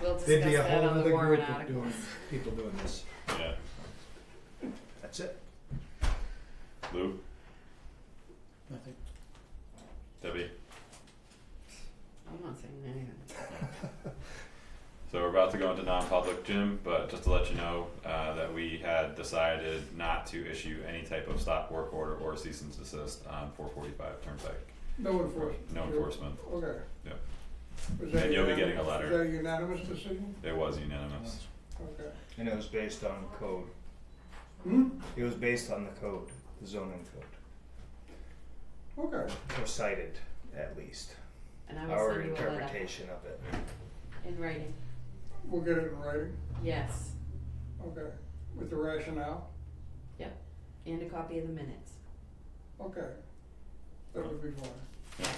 we'll discuss There'd be a that whole on the other group warrant of doing, articles. people doing this. Yeah, That's it. Lou, Nothing. Debbie, I'm not saying anything. so we're about to go into non-public, Jim, but just to let you know, uh, that we had decided not to issue any type of stop work order or cease and desist on four forty-five Turnpike. No enforcement. No enforcement, Okay. Yeah. Was that And you'll be unanim- getting a letter. Is that a unanimous decision? it was unanimous. Okay. And it was based on code. Hmm, It was based on the code, the zoning code, okay. or cited at least. And I will Our send you a letter interpretation of it. in writing. We'll get it in writing, Yes, okay, with the rationale, and a copy of the minutes. okay. That would be fine. Yeah.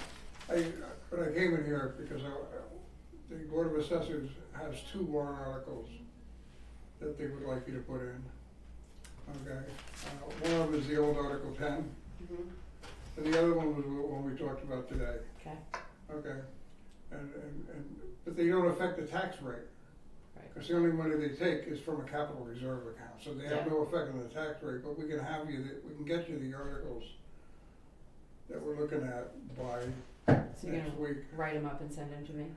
I, but I came in here because I, I- the Board of Assessors has two warrant articles that they would like you to put in. Okay, uh, one of them is the old Article ten, Mm-hmm. and the other one was the one we talked about today. Okay. Okay, and, and, and, but they don't affect the tax rate. Right. Because the only money they take is from a capital reserve account, so they have Yeah. no effect on the tax rate, but we can have you, the- we can get you the articles that we're looking at by So you're next gonna week. write them up and send them to me?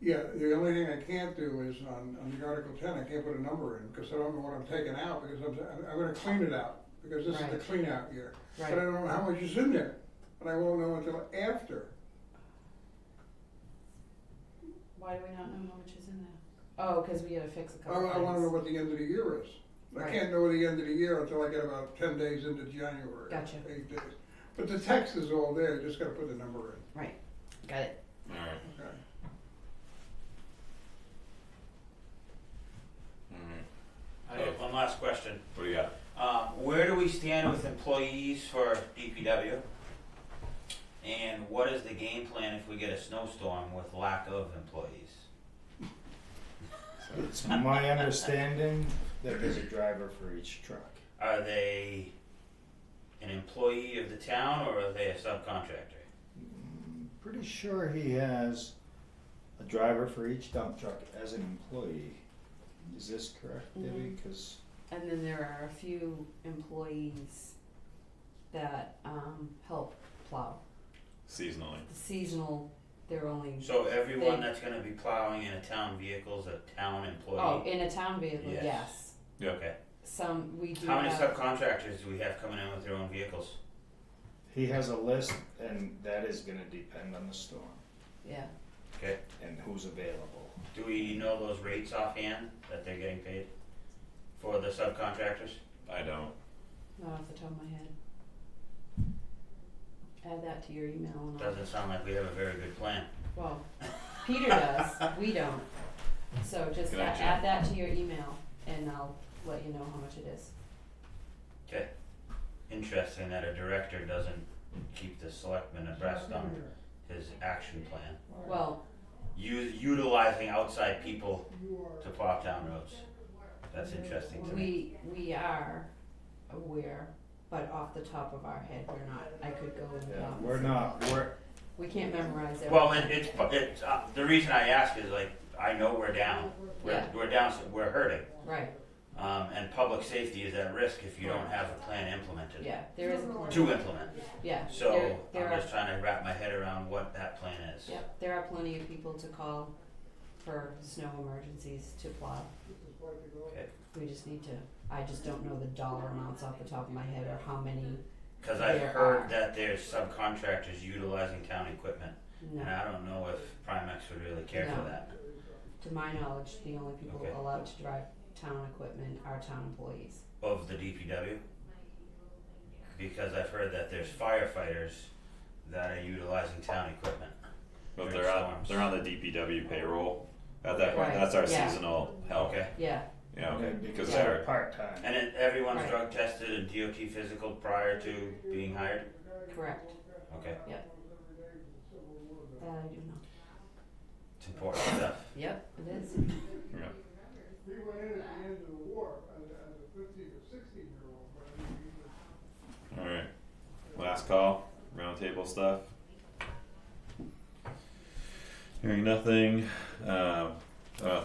Yeah, the only thing I can't do is on, on the Article ten, I can't put a number in, because I don't know what I'm taking out, because I'm, I'm- I'm gonna clean it out, because this is the Right. clean out year. But I Right, don't know how much is in there, and I won't know until after. why do we not know how much is in there? Oh, cause we gotta fix a I, couple I wanna know things. what the end of the year is. I Right. can't know the end of the year until I get about ten days into January. Gotcha. Eight days. But the text is all there, you just gotta put the number Got it, Alright, in, okay? alright, I have one last question. what do you got? Um, where do we stand with employees for DPW? And what is the game plan if we get a snowstorm with lack of employees? It's my understanding that there's a driver for each truck. Are they an employee of the town or are they a subcontractor? Mm, Pretty sure he has a driver for each dump truck as an employee. Is this correct, Mm-hmm. Debbie? Cause and then there are a few employees that, um, help plow, Seasonally, seasonal, they're only, So everyone They- that's gonna be plowing in a town vehicle is a town employee? oh, in a town vehicle, Yes. yes. Okay. Some, we do How many have, subcontractors do we have coming in with their own vehicles? he has a list and that is gonna depend on the storm yeah, Okay. and who's available. Do we know those rates offhand that they're getting paid for the subcontractors? I don't, not off the top of my head. Add that to your email and I'll Doesn't sound like we have a very good plan. Well, Peter does, we don't. So just a- Gotcha. add that to your email and I'll let you know how much it is. Interesting that a director doesn't keep the selectmen abreast on his action plan. Well, U- utilizing outside people to plow town roads. That's interesting to me. we, we are aware, but off the top of our head, we're not, I could go and. Yeah, um, we're not, we're, We can't memorize everything. Well, it, it's, it's, uh, the reason I ask is like, I know we're down. We're, Yeah. we're down, we're hurting. Right, Um, and public safety is at risk if you don't have a plan implemented, yeah, there is a plan, to implement. yeah, there, So there I'm are, just trying to wrap my head around what that plan is. yeah, there are plenty of people to call for snow emergencies to plow. Okay. We just need to, I just don't know the dollar amounts off the top of my head or how many, Cause I've There are. heard that there's subcontractors utilizing town equipment, no. and I don't know if Primex would really care for No. that. To my knowledge, the only people Okay. allowed to drive town equipment are town employees. Of the DPW? Because I've heard that there's firefighters that are utilizing town equipment. but Great they're on, storms. they're on the DPW payroll at that point, Right, that's our yeah. Mm-hmm. seasonal help, Okay, Yeah, you know, because because they're. they're part-time. and it, everyone's Right. drug tested and DOT physical prior to being hired? correct. Okay, That I do know. it's important stuff. Yep, it is. We went in at the end of the war, as, as a fifteen or sixteen year old, but I mean, we- Alright, last call, roundtable stuff. Hearing nothing, um, uh,